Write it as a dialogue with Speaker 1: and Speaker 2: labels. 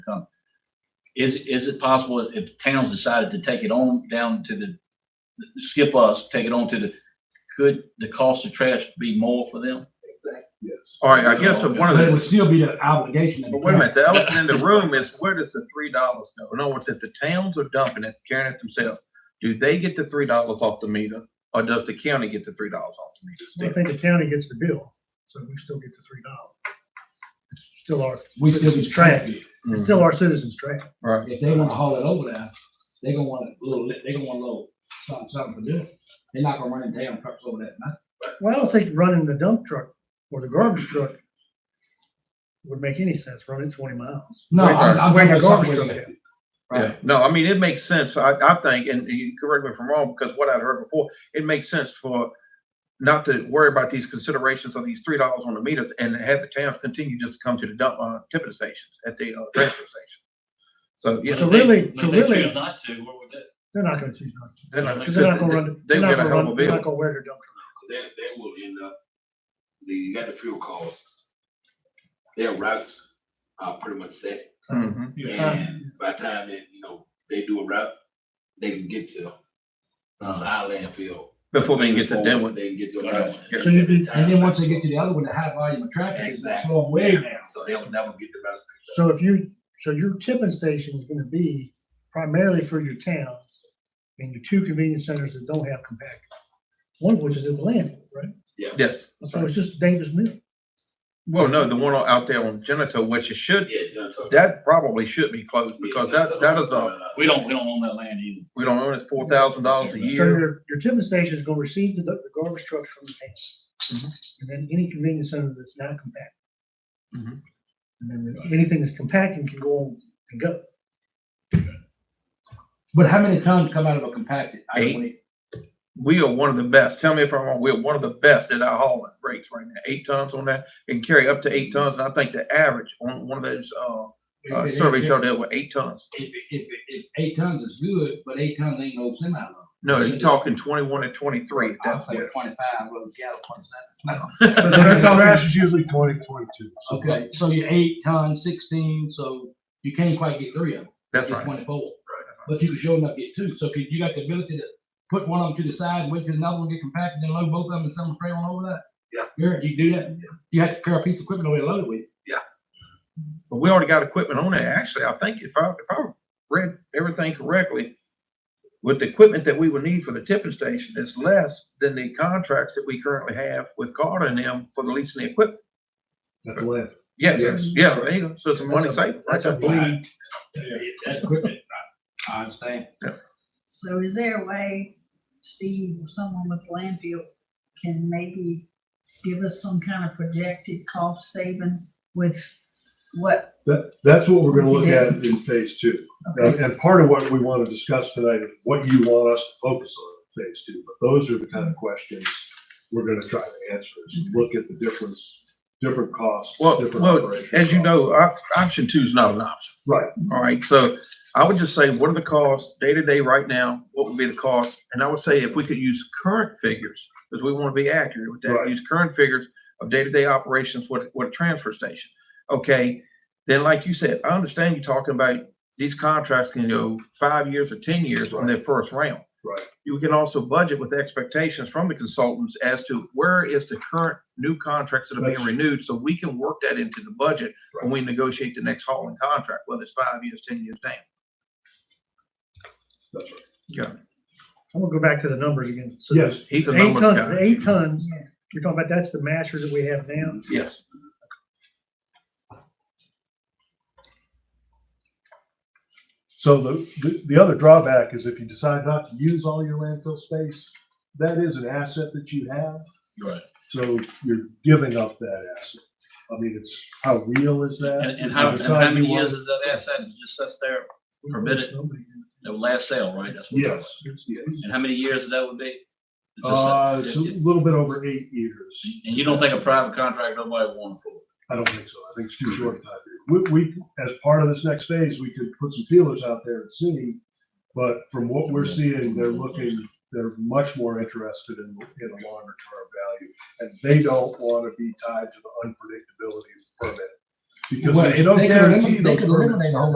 Speaker 1: come. Is, is it possible if towns decided to take it on down to the, skip us, take it on to the, could the cost of trash be more for them?
Speaker 2: Yes.
Speaker 3: All right, I guess one of
Speaker 4: But it would
Speaker 3: the,
Speaker 4: still be an obligation. of the
Speaker 3: but wait a minute,
Speaker 4: county.
Speaker 3: the elephant in the room is where does the three dollars go? In other words, if the towns are dumping it, carrying it themselves, do they get the three dollars off the meter? Or does the county get the three dollars off the
Speaker 5: Well, I
Speaker 3: meter?
Speaker 5: think the county gets the bill, so we still get the three dollars. Still our,
Speaker 4: We still be trash.
Speaker 5: it's
Speaker 3: Mhm,
Speaker 5: still our citizens' trash.
Speaker 3: Right,
Speaker 4: If they wanna haul it over there, they gonna want a little, they gonna want a little something, something to do. They're not gonna run damn trucks over that night.
Speaker 5: Well, I don't think running the dump truck or the garbage truck would make any sense, running twenty miles.
Speaker 4: No, I'm, I'm.
Speaker 5: Bring a
Speaker 4: thinking something
Speaker 5: garbage truck
Speaker 4: with
Speaker 5: in.
Speaker 4: it. Right.
Speaker 3: yeah. No, I mean, it makes sense, I, I think, and you correct me if I'm wrong, because what I heard before, it makes sense for not to worry about these considerations of these three dollars on the meters and have the towns continue just to come to the dump, uh, tipping stations at the, uh, transfer station. So, yeah.
Speaker 5: So really,
Speaker 1: But
Speaker 5: so
Speaker 1: if they choose
Speaker 5: really,
Speaker 1: not to, what would that?
Speaker 5: they're not gonna choose not to,
Speaker 3: They're not,
Speaker 5: because they're not gonna run,
Speaker 3: they
Speaker 5: they're
Speaker 3: would
Speaker 5: not
Speaker 3: get a
Speaker 5: gonna
Speaker 3: hell of a
Speaker 5: run, they're
Speaker 3: bill.
Speaker 5: not gonna wear their dump truck.
Speaker 2: That, that will end up, the, you got the fuel cost. Their routes are pretty much set.
Speaker 3: Mhm.
Speaker 2: And by the time that, you know, they do a route, they can get to uh, our landfill.
Speaker 3: Before they can get to
Speaker 2: Before
Speaker 3: Denwood.
Speaker 2: They can get to. another one.
Speaker 5: So you did-
Speaker 4: And then once they get to the other one, the high volume of traffic, it's gonna slow them way down.
Speaker 2: So they'll never get the rest.
Speaker 5: So if you, so your tipping station is gonna be primarily for your towns and your two convenience centers that don't have compactors. One of which is at the landfill, right?
Speaker 3: Yes.
Speaker 5: So it's just a dangerous meal.
Speaker 3: Well, no, the one out there on Genito, which it should,
Speaker 2: Yeah, John Uh, Tucker.
Speaker 3: that probably should be closed because that, that is a,
Speaker 1: We don't, we don't own that land either.
Speaker 3: we don't own it's four thousand dollars a
Speaker 5: So
Speaker 3: year.
Speaker 5: your, your tipping station is gonna receive the, the garbage trucks from the
Speaker 3: Mhm.
Speaker 5: town. And then any convenience center that's not compact.
Speaker 3: Mhm.
Speaker 5: And then anything that's compacting can go on and go.
Speaker 4: But how many tons come out of a compacted?
Speaker 3: Eight. We are one of the best. Tell me if I'm wrong. We're one of the best at our hauling rates right now. Eight tons on that. It can carry up to eight tons. And I think the average on one of those, uh, uh, surveys showed that were eight tons.
Speaker 4: If, if, if eight tons is good, but eight tons ain't no semi load.
Speaker 3: No, you're talking twenty-one and twenty-three.
Speaker 4: I was
Speaker 3: That's
Speaker 4: thinking
Speaker 3: what-
Speaker 4: twenty-five, load gallon, twenty-seven.
Speaker 5: Trash
Speaker 6: is usually twenty, twenty-two.
Speaker 4: Okay, so you're eight tons, sixteen, so you can't quite get three of them.
Speaker 3: That's
Speaker 4: get
Speaker 3: right.
Speaker 4: Twenty-four. But you can show enough get two, so could, you got the ability to put one of them to the side, wait till another one get compacted, then load both of them and send them straight on over that?
Speaker 2: Yeah.
Speaker 4: You're, you do that, you have to carry a piece of equipment over there loaded with.
Speaker 3: But we already got equipment on there. Actually, I think if I, if I read everything correctly, with the equipment that we would need for the tipping station is less than the contracts that we currently have with Carter and them for the leasing the equipment.
Speaker 6: At the landfill.
Speaker 3: Yes,
Speaker 6: Yes.
Speaker 3: yeah, there you go. So it's a money saving.
Speaker 5: That's a bleed.
Speaker 4: That equipment, I, I understand.
Speaker 7: So is there a way, Steve, or someone with landfill can maybe give us some kind of projected cost savings with what?
Speaker 6: That, that's what we're gonna look at in phase two. And, and part of what we wanna discuss tonight is what you want us to focus on in phase two. But those are the kind of questions we're gonna try to answer, is
Speaker 1: Mm-hmm.
Speaker 6: look at the difference, different costs,
Speaker 3: Well,
Speaker 6: different
Speaker 3: well,
Speaker 6: operational
Speaker 3: as you
Speaker 6: costs.
Speaker 3: know, op- option two is not an option.
Speaker 6: Right.
Speaker 3: All right, so I would just say, what are the costs day to day right now? What would be the cost? And I would say if we could use current figures, because we want to be accurate with that,
Speaker 6: Right.
Speaker 3: use current figures of day to day operations, what, what a transfer station. Okay, then like you said, I understand you talking about these contracts can go five years or ten years on their first round.
Speaker 6: Right.
Speaker 3: You can also budget with expectations from the consultants as to where is the current new contracts that are being
Speaker 6: That's-
Speaker 3: renewed, so we can work that into the budget when we negotiate the next hauling contract, whether it's five years, ten years down.
Speaker 6: That's right.
Speaker 5: I'm gonna go back to the numbers again. So
Speaker 6: Yes,
Speaker 3: He's a
Speaker 5: the Eight
Speaker 3: numbers
Speaker 5: tons, the
Speaker 3: guy.
Speaker 5: eight tons, you're talking about, that's the masher that we have now.
Speaker 3: Yes.
Speaker 6: so the, the, the other drawback is if you decide not to use all your landfill space, that is an asset that you have.
Speaker 1: Right.
Speaker 6: So you're giving up that asset. I mean, it's, how real is that?
Speaker 1: And, and how, and
Speaker 6: If you
Speaker 1: how
Speaker 6: decide you
Speaker 1: many
Speaker 6: want-
Speaker 1: years is that asset that just sits there, Permitted. the last sale, right? That's what-
Speaker 6: Yes, yes.
Speaker 1: And how many years that would be? Just that-
Speaker 6: Uh, it's a
Speaker 1: And
Speaker 6: little bit over eight years.
Speaker 1: you don't think a private contract, nobody would want it for?
Speaker 6: I don't think so. I think it's too short a time period. We, we, as part of this next phase, we could put some feelers out there and see. But from what we're seeing, they're looking, they're much more interested in, in a longer term value. And they don't want to be tied to the unpredictability of the permit. Because
Speaker 4: Well,
Speaker 6: there's
Speaker 4: if
Speaker 6: no
Speaker 4: they could
Speaker 6: guarantee
Speaker 4: eliminate- They
Speaker 6: those
Speaker 4: could
Speaker 6: permits-
Speaker 4: eliminate a whole